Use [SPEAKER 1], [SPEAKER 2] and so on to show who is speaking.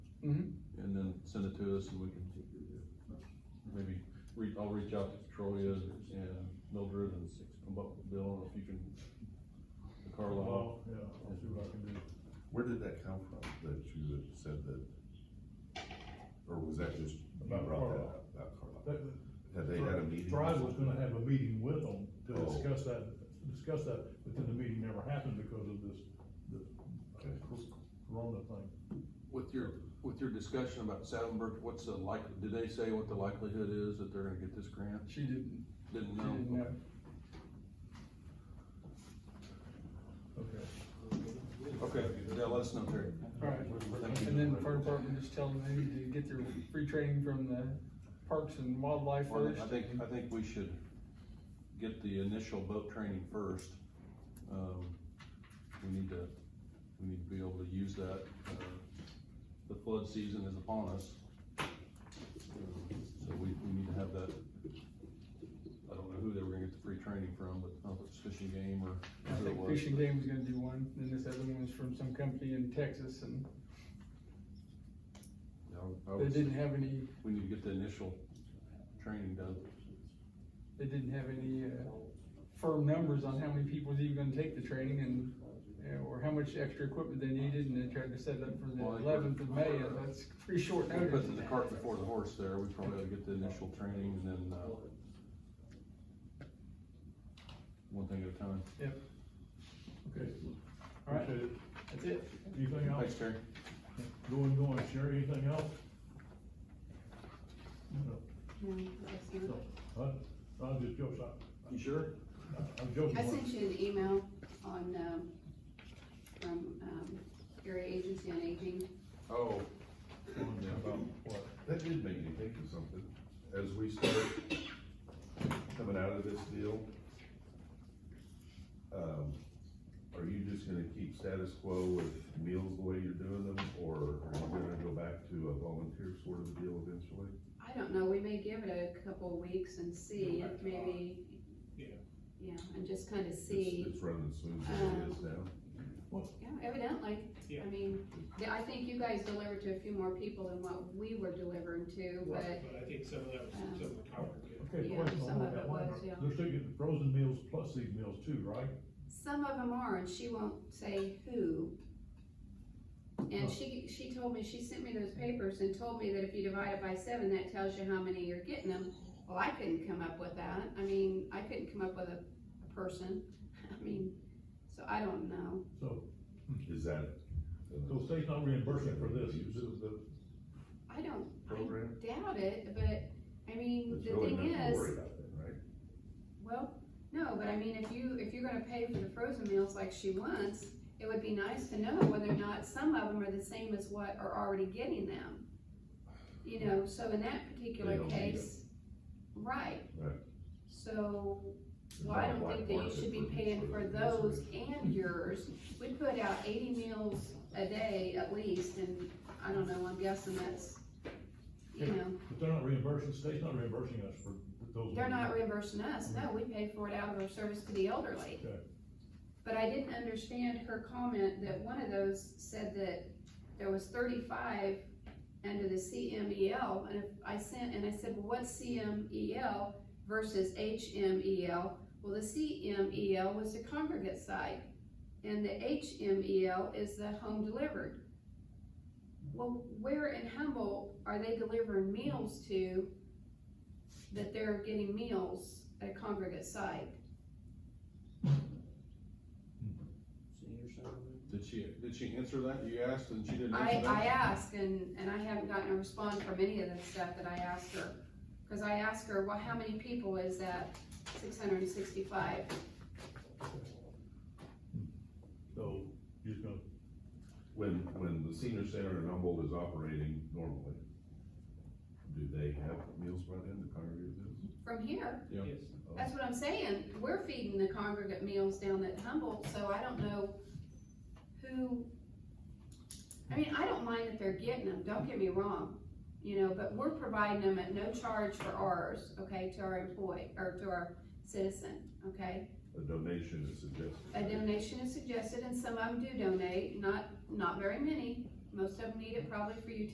[SPEAKER 1] Mhm.
[SPEAKER 2] And then send it to us and we can maybe, re- I'll reach out to Petrolia and Mildred and come up with a bill and if you can, the Carlisle.
[SPEAKER 3] Well, yeah, I'll see what I can do.
[SPEAKER 4] Where did that come from, that you had said that? Or was that just, you
[SPEAKER 3] About
[SPEAKER 4] brought that
[SPEAKER 3] Carlisle.
[SPEAKER 4] up, about Carlisle?
[SPEAKER 3] That-
[SPEAKER 4] Had they had a meeting? or
[SPEAKER 3] Thrive was
[SPEAKER 4] something?
[SPEAKER 3] gonna have a meeting with them to
[SPEAKER 4] Oh.
[SPEAKER 3] discuss that, discuss that, but then the meeting never happened because of this, the
[SPEAKER 4] Okay.
[SPEAKER 3] Corona thing.
[SPEAKER 2] With your, with your discussion about Saddleburg, what's the like, did they say what the likelihood is that they're gonna get this grant?
[SPEAKER 1] She didn't,
[SPEAKER 2] Didn't
[SPEAKER 1] she didn't
[SPEAKER 2] know.
[SPEAKER 1] know.
[SPEAKER 3] Okay.
[SPEAKER 2] Okay, yeah, let us know, Terry.
[SPEAKER 1] Alright, and then the fire department just tell them they need to get their free training from the Parks and Wildlife
[SPEAKER 2] Well,
[SPEAKER 1] first.
[SPEAKER 2] I think, I think we should get the initial boat training first. Um, we need to, we need to be able to use that, uh, the flood season is upon us. Um, So we, we need to have that, I don't know who they were gonna get the free training from, but I don't know if it's fishing game or
[SPEAKER 1] I
[SPEAKER 2] who it
[SPEAKER 1] think
[SPEAKER 2] was.
[SPEAKER 1] Fishing Game was gonna do one, then this other one was from some company in Texas, and
[SPEAKER 2] Yeah, I would- I
[SPEAKER 1] they
[SPEAKER 2] would say
[SPEAKER 1] didn't have any,
[SPEAKER 2] We need to get the initial training done.
[SPEAKER 1] they didn't have any, uh, firm numbers on how many people was even gonna take the training and, uh, or how much extra equipment they needed, and they tried to set it up for the
[SPEAKER 2] Well, I think
[SPEAKER 1] eleventh of May,
[SPEAKER 2] we're-
[SPEAKER 1] and that's pretty short
[SPEAKER 2] We
[SPEAKER 1] notice.
[SPEAKER 2] put the cart before the horse there, we probably ought to get the initial training and then, uh, one thing at a time.
[SPEAKER 1] Yep,
[SPEAKER 3] Okay.
[SPEAKER 1] Alright.
[SPEAKER 3] Appreciate it.
[SPEAKER 1] that's it.
[SPEAKER 3] Anything
[SPEAKER 2] Thanks,
[SPEAKER 3] else?
[SPEAKER 2] Terry.
[SPEAKER 3] Going, going, Sherry, anything else? No.
[SPEAKER 5] I
[SPEAKER 3] No. Huh? I'm just joking.
[SPEAKER 2] You sure?
[SPEAKER 3] I'm joking.
[SPEAKER 5] sent you an email on, um, from, um, area agency on aging.
[SPEAKER 2] Oh.
[SPEAKER 3] About what?
[SPEAKER 4] That did make me think of something, as we start coming out of this deal. Um, are you just gonna keep status quo with meals the way you're doing them, or are you gonna go back to a volunteer sort of deal eventually?
[SPEAKER 5] I don't know, we may give it a couple weeks and see, maybe.
[SPEAKER 3] Yeah.
[SPEAKER 5] Yeah, and just kind of
[SPEAKER 4] It's,
[SPEAKER 5] see,
[SPEAKER 4] it's running smooth as it is now.
[SPEAKER 5] yeah, evidently, I mean, yeah, I think you guys delivered to a few more people than what we were delivering to, but,
[SPEAKER 6] But I think some of that was, some of the cover, yeah.
[SPEAKER 3] Okay,
[SPEAKER 5] Yeah,
[SPEAKER 3] question
[SPEAKER 5] some
[SPEAKER 3] on
[SPEAKER 5] of
[SPEAKER 3] that
[SPEAKER 5] it
[SPEAKER 3] one.
[SPEAKER 5] was, yeah.
[SPEAKER 3] They're still getting frozen meals plus these meals too, right?
[SPEAKER 5] Some of them are, and she won't say who. And she, she told me, she sent me those papers and told me that if you divide it by seven, that tells you how many you're getting them. Well, I couldn't come up with that, I mean, I couldn't come up with a, a person, I mean, so I don't know.
[SPEAKER 3] So,
[SPEAKER 4] Is that?
[SPEAKER 3] so state's not reimbursing for this.
[SPEAKER 5] I don't,
[SPEAKER 4] Program?
[SPEAKER 5] I doubt it, but, I mean,
[SPEAKER 4] It's
[SPEAKER 5] the
[SPEAKER 4] really
[SPEAKER 5] thing
[SPEAKER 4] nothing to
[SPEAKER 5] is,
[SPEAKER 4] worry about then, right?
[SPEAKER 5] Well, no, but I mean, if you, if you're gonna pay for the frozen meals like she wants, it would be nice to know whether or not some of them are the same as what are already getting them. You know, so in that particular
[SPEAKER 4] They don't need
[SPEAKER 5] case, right.
[SPEAKER 4] Right.
[SPEAKER 5] So, well, I don't think that you should be paying for those and yours. We put out eighty meals a day at least, and I don't know, I'm guessing that's, you know.
[SPEAKER 3] But they're not reimbursing, state's not reimbursing us for those.
[SPEAKER 5] They're not
[SPEAKER 3] meals.
[SPEAKER 5] reimbursing us, no, we pay for it out of our service to the elderly.
[SPEAKER 3] Okay.
[SPEAKER 5] But I didn't understand her comment that one of those said that there was thirty-five under the CMEL, and if I sent, and I said, well, what's CMEL versus HMEL? Well, the CMEL was the congregate site, and the HMEL is the home delivered. Well, where in Humboldt are they delivering meals to that they're getting meals at a congregate site?
[SPEAKER 2] Did she, did she answer that? You asked and she didn't
[SPEAKER 5] I,
[SPEAKER 2] answer
[SPEAKER 5] I
[SPEAKER 2] that?
[SPEAKER 5] asked and, and I haven't gotten a response from any of the stuff that I asked her. Cause I asked her, well, how many people is that six hundred and sixty-five?
[SPEAKER 3] So, you're just gonna,
[SPEAKER 4] When, when the senior center in Humboldt is operating normally, do they have meals brought in, the congregate meals?
[SPEAKER 5] From here,
[SPEAKER 2] Yeah.
[SPEAKER 6] Yes.
[SPEAKER 5] that's what I'm saying, we're feeding the congregate meals down at Humboldt, so I don't know who. I mean, I don't mind that they're getting them, don't get me wrong, you know, but we're providing them at no charge for ours, okay, to our employee, or to our citizen, okay?
[SPEAKER 4] A donation is
[SPEAKER 5] A
[SPEAKER 4] suggested.
[SPEAKER 5] donation is suggested, and some of them do donate, not, not very many. Most of them need it probably for utility